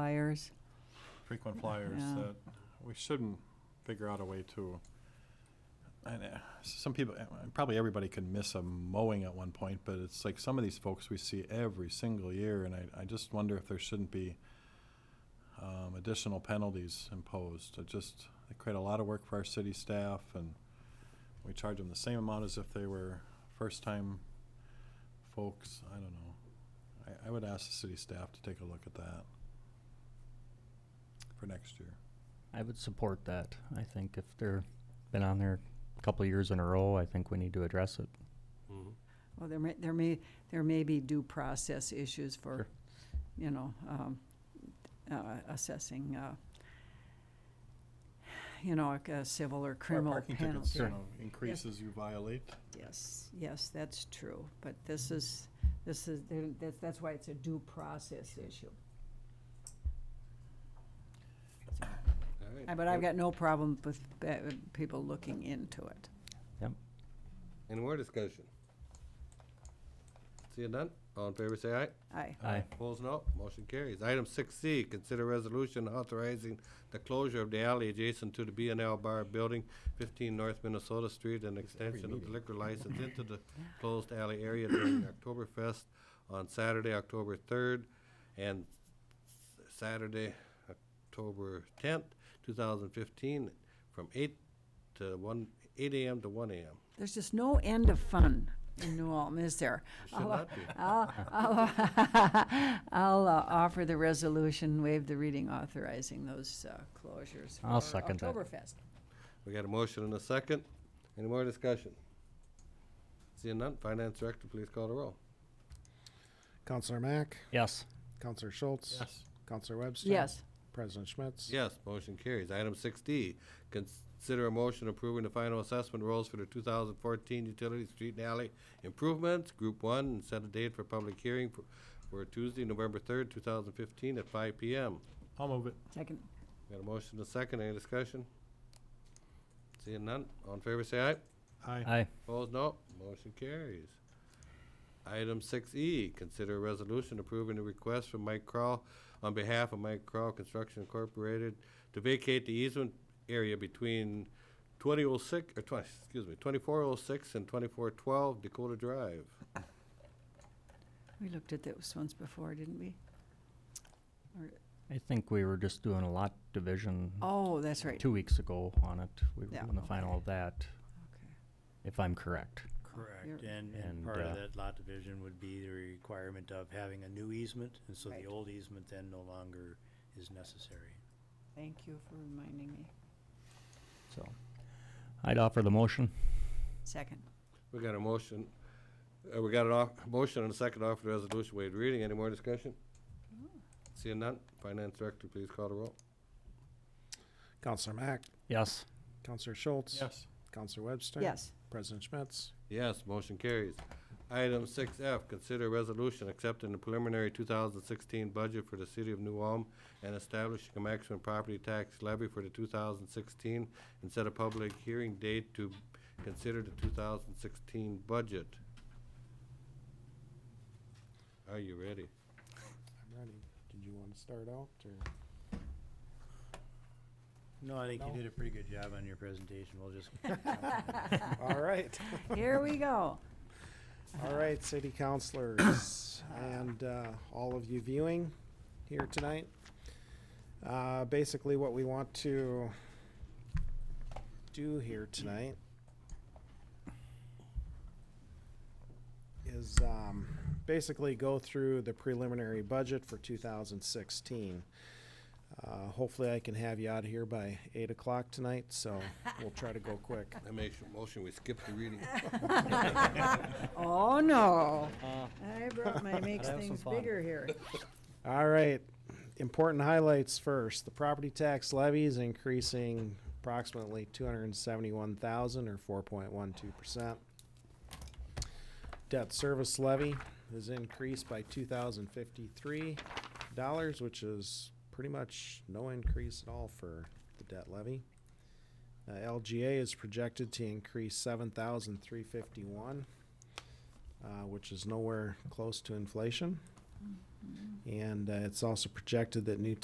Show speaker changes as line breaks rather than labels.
flyers.
frequent flyers
Yeah.
that we shouldn't figure out a way to. And uh, some people, uh, probably everybody could miss a mowing at one point, but it's like some of these folks we see every single year, and I, I just wonder if there shouldn't be um, additional penalties imposed. It just, they create a lot of work for our city staff, and we charge them the same amount as if they were first-time folks. I don't know. I, I would ask the city staff to take a look at that for next year.
I would support that. I think if they're been on there a couple of years in a row, I think we need to address it.
Well, there may, there may, there may be due process issues for,
Sure.
you know, um, uh, assessing, uh, you know, like a civil or criminal
Parking
penalty.
tickets, you know, increases you violate.
Yes, yes, that's true, but this is, this is, there- that's, that's why it's a due process issue. Uh, But I've got no problem with uh, people looking into it.
Any more discussion? Seeing none, all in favor say aye.
Aye.
Aye.
Opposed, no. Motion carries. Item six C, consider resolution authorizing the closure of the alley adjacent to the B and L Bar Building, fifteen North Minnesota Street, and extension of the liquor license into the closed alley area during Oktoberfest on Saturday, October third, and Saturday, October tenth, two thousand fifteen, from eight to one, eight AM to one AM.
There's just no end of fun in New Ulm, is there?
Should not be.
I'll, I'll, I'll uh, offer the resolution, waive the reading authorizing those uh, closures
I'll
for
second that.
Oktoberfest.
We got a motion and a second. Any more discussion? Seeing none, Finance Director, please call the roll.
Counselor Mack,
Yes.
Counselor Schultz, Counselor Webster.
Yes,
President Schmitz.
Yes, motion carries. Item six D, consider a motion approving the final assessment rolls for the two thousand fourteen utility street and alley improvements, group one, and set a date for public hearing for, for Tuesday, November third, two thousand fifteen, at five P M.
I'll move it.
second,
Got a motion and a second. Any discussion? Seeing none, all in favor say aye.
Aye.
Aye.
Opposed, no. Motion carries. Item six E, consider a resolution approving the request from Mike Crowe on behalf of Mike Crowe Construction Incorporated to vacate the easement area between twenty oh six, or twenty, excuse me, twenty-four oh six and twenty-four twelve Dakota Drive.
we looked at those ones before, didn't we?
I think we were just doing a lot division
Oh, that's right.
two weeks ago on it. We were
Yeah,
doing the final
okay.
of that,
Okay.
if I'm correct.
You're-
Correct, and,
And,
and part
uh,
of that lot division would be the requirement of having a new easement, and so
Right.
the old easement then no longer is necessary.
Thank you for reminding me.
So I'd offer the motion.
Second,
We got a motion, uh, we got an off, motion and a second offer the resolution, waived reading. Any more discussion? Seeing none, Finance Director, please call the roll.
Counselor Mack,
Yes.
Counselor Schultz.
Yes.
Counselor Webster.
yes,
President Schmitz.
Yes, motion carries. Item six F, consider resolution accepting the preliminary two thousand sixteen budget for the city of New Ulm and establishing a maximum property tax levy for the two thousand sixteen and set a public hearing date to consider the two thousand sixteen budget. Are you ready?
I'm ready. Did you want to start out or?
No, I think you
No.
did a pretty good job on your presentation, we'll just.
All right.
here we go.
All right, city councilors and uh, all of you viewing here tonight. Uh, Basically, what we want to do here tonight is um, basically go through the preliminary budget for 2016. Uh, Hopefully, I can have you out of here by 8 o'clock tonight, so we'll try to go quick.
I make a motion, we skip the reading.
Oh, no. I brought my makes
Uh. have some
things
fun.
bigger here.
All right, important highlights first. The property tax levy is increasing approximately two hundred and seventy-one thousand or four point one two percent. Debt service levy is increased by two thousand fifty-three dollars, which is pretty much no increase at all for the debt levy. Uh, LGA is projected to increase seven thousand three fifty-one, uh, which is nowhere close to inflation. And uh, it's also projected that new